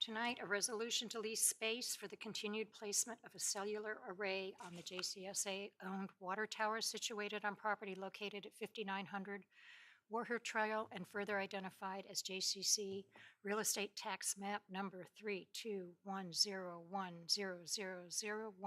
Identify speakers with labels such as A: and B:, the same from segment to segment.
A: tonight a resolution to lease space for the continued placement of a cellular array on the JCSA-owned water tower situated on property located at 5900 Warher Trail and further identified as JCC Real Estate Tax Map Number 3210100012B.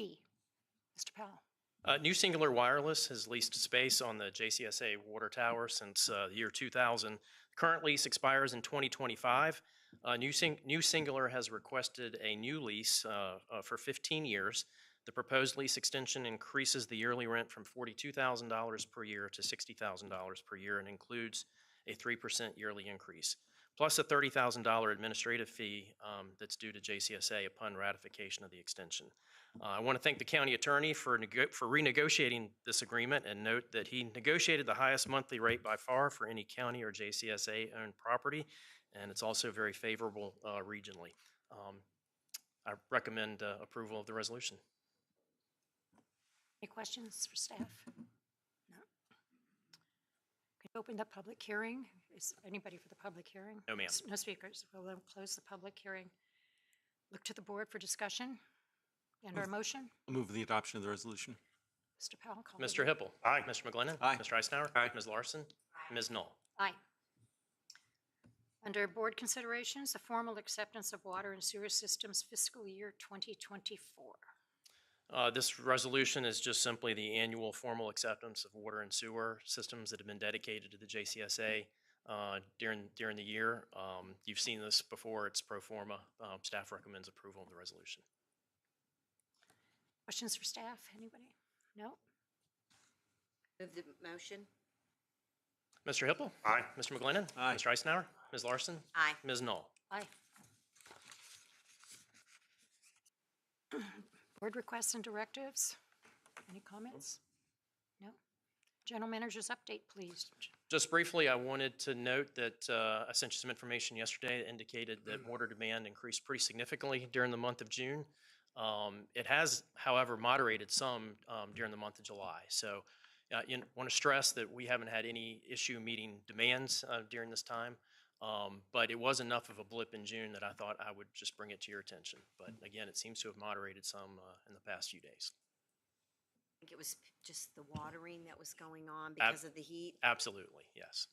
A: Mr. Powell.
B: Uh, New Singular Wireless has leased space on the JCSA water tower since uh, the year 2000. Current lease expires in 2025. Uh, New Sing- New Singular has requested a new lease uh, uh, for 15 years. The proposed lease extension increases the yearly rent from $42,000 per year to $60,000 per year and includes a 3% yearly increase, plus a $30,000 administrative fee um, that's due to JCSA upon ratification of the extension. Uh, I want to thank the county attorney for nego- for renegotiating this agreement and note that he negotiated the highest monthly rate by far for any county or JCSA-owned property, and it's also very favorable uh, regionally. Um, I recommend uh, approval of the resolution.
A: Any questions for staff? No. Can open the public hearing? Is anybody for the public hearing?
B: No, ma'am.
A: No speakers. We'll then close the public hearing. Look to the board for discussion and our motion.
C: I'll Move the adoption of the resolution.
A: Mr. Powell, call the
B: Mr.
A: roll.
B: Hippel. Aye. Mr. McGlinnan.
C: Aye.
B: Mr. Eisenhower. Aye. Ms. Larson. Ms. Knoll.
A: Aye. Under board considerations, the formal acceptance of water and sewer systems fiscal year 2024.
B: Uh, This resolution is just simply the annual formal acceptance of water and sewer systems that have been dedicated to the JCSA uh, during, during the year. Um, You've seen this before, it's pro forma. Um, Staff recommends approval of the resolution.
A: Questions for staff? Anybody? No?
D: Move the motion?
B: Mr. Hippel. Aye. Mr. McGlinnan.
C: Aye.
B: Mr. Eisenhower. Ms. Larson.
D: Aye.
B: Ms. Knoll.
A: Aye. Board requests and directives? Any comments? No? General Manager's update, please.
B: Just briefly, I wanted to note that uh, I sent you some information yesterday that indicated that water demand increased pretty significantly during the month of June. Um, It has, however, moderated some um, during the month of July. So uh, I want to stress that we haven't had any issue meeting demands uh, during this time. Um, But it was enough of a blip in June that I thought I would just bring it to your attention. But again, it seems to have moderated some uh, in the past few days.
D: I think it was just the watering that was going on because of the heat.
B: Absolutely, yes.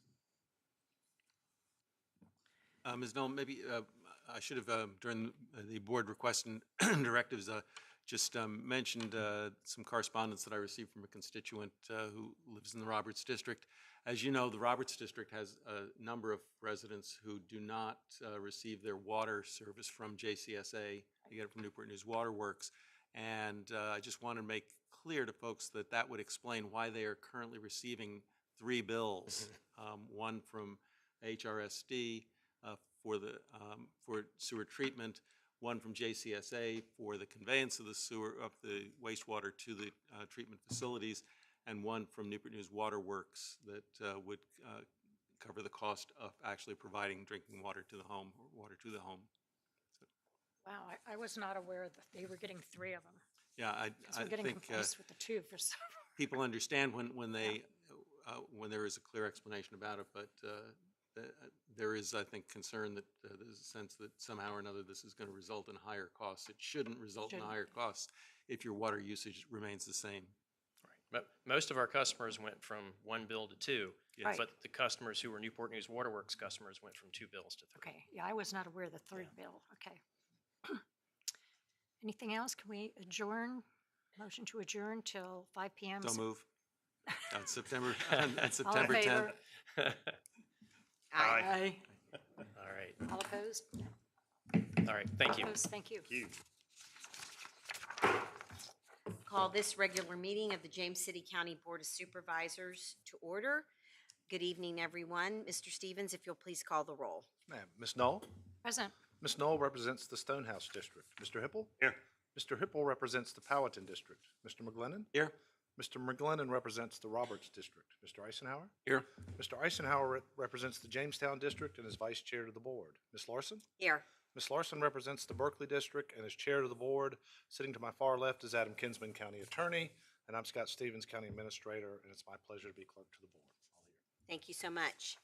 C: Uh, Ms. Noel, maybe uh, I should have, uh, during the board request and directives, uh, just um, mentioned uh, some correspondence that I received from a constituent uh, who lives in the Roberts District. As you know, the Roberts District has a number of residents who do not uh, receive their water service from JCSA. They get it from Newport News Water Works. And uh, I just want to make clear to folks that that would explain why they are currently receiving three bills. Um, One from HRSD uh, for the, um, for sewer treatment, one from JCSA for the conveyance of the sewer, of the wastewater to the uh, treatment facilities, and one from Newport News Water Works that uh, would uh, cover the cost of actually providing drinking water to the home, or water to the home.
A: Wow, I- I was not aware that they were getting three of them.
C: Yeah, I,
A: Because
C: I
A: we're getting
C: think uh,
A: confused with the two for some.
C: people understand when, when they, uh, when there is a clear explanation about it, but uh, the- there is, I think, concern that, uh, there's a sense that somehow or another this is going to result in higher costs. It shouldn't result in
A: Shouldn't.
C: higher costs if your water usage remains the same.
B: But most of our customers went from one bill to two.
A: Yes.
B: But the customers who were Newport News Waterworks customers went from two bills to three.
A: Okay, yeah, I was not aware of the third bill. Okay. Anything else? Can we adjourn? Motion to adjourn till 5 PM?
C: So move. On September, on on
A: All in
C: September 10th.
A: favor?
D: Aye.
A: Aye.
B: All right,
A: All opposed? No.
B: all right, thank you.
A: Opposed, thank you.
D: Call this regular meeting of the James City County Board of Supervisors to order. Good evening, everyone. Mr. Stevens, if you'll please call the roll.
E: Ma'am, Ms. Knoll?
A: Present.
E: Ms. Knoll represents the Stonehouse District. Mr. Hippel? Here. Mr. Hippel represents the Powhatan District. Mr. McGlennon?
C: Here?
E: Mr. McGlennon represents the Roberts District. Mr. Eisenhower?
C: Here.
E: Mr. Eisenhower re- represents the Jamestown District and is Vice Chair to the Board. Ms. Larson?
D: Here.
E: Ms. Larson represents the Berkeley District and is Chair to the Board. Sitting to my far left is Adam Kinsman, County Attorney, and I'm Scott Stevens, County Administrator, and it's my pleasure to be Clerk to the Board. All here.
D: Thank you so much.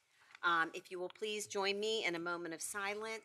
D: Um, If you will please join me in a moment of silence